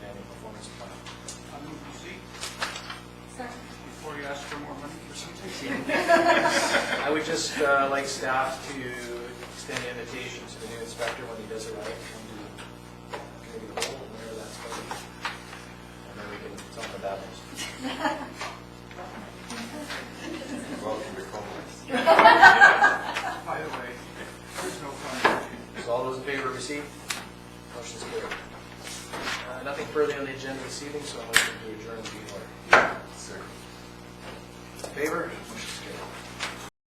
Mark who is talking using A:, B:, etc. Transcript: A: Um,
B: I would just uh, like staff to extend an invitation to the new inspector when he does arrive, come to committee of the whole, whenever that's going. And then we can talk about it.
C: Welcome to Comox.
A: By the way, there's no comment.
B: So all those in favor receive? Motion's carried. Uh, Nothing further on the agenda this evening, so I'm going to adjourn the meeting.
C: Sir.
B: In Favor? Motion's carried.